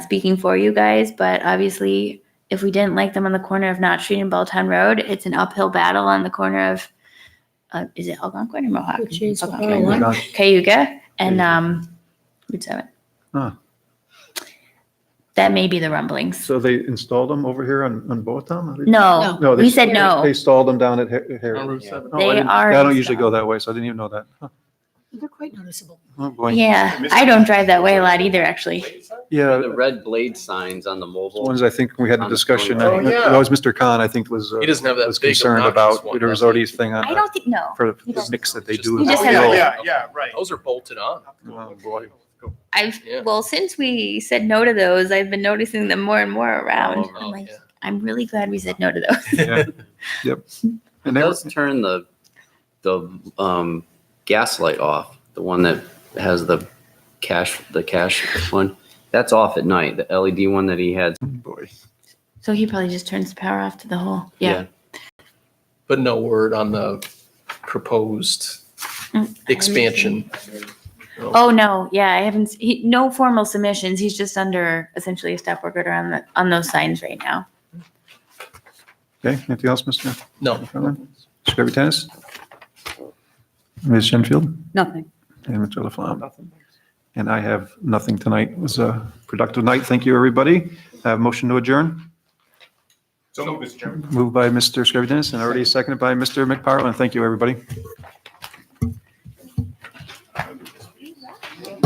speaking for you guys, but obviously, if we didn't like them on the corner of Knott Street and Belltown Road, it's an uphill battle on the corner of, uh, is it Algonquin or Mohawk? Which is Algonquin. Oh, Hang on. Cayuga and Cayuga. um, Route 7. Huh. That may be the rumblings. So they installed them over here on, on both of them? No, No, they- we said no. They stalled them down at Har- On Harry. Route seven. Oh, I They didn't- are I don't usually go installed. that way, so I didn't even know that. Huh. They're quite noticeable. Oh, boy. Yeah, I don't drive that way a lot either, actually. Yeah, The red blade signs on the mobile. ones I think we had a Oh, discussion, yeah. I- that was Mr. Khan, I think, was, uh, He doesn't have that was big concerned obnoxious about one, there was does he? already a thing on I the- don't think, no. for he the doesn't. mix that they Just- He do. with just the has a- oil. Oh, Yeah, yeah, right. Those are bolted on. Oh, boy. I've, Yeah. well, since we said no to those, I've been noticing them more and more around. Oh, I'm like, yeah. I'm really glad we said no to those. Yeah. Yep. It And they were- does turn the, the, um, gas light off, the one that has the cash, the cash one. That's off at night, the LED one that he had. Oh, boy. So he probably just turns the power off to the whole. Yeah. But no word on the proposed Mm, expansion. Oh no, yeah, I haven't. s- He, no formal submissions. He's just under essentially a stop work order on the on those signs right now. Okay, anything else, Mr. No, Conlon? Secretary Tennis? Ms. Shenfield? Nothing. And Mr. Laflamme? And I have nothing tonight. It was a productive night. Thank you, everybody. Uh, Motion to adjourn, So move, Mr. Chairman. moved by Mr. Scrivener and already seconded by Mr. McParland. Thank you, everybody.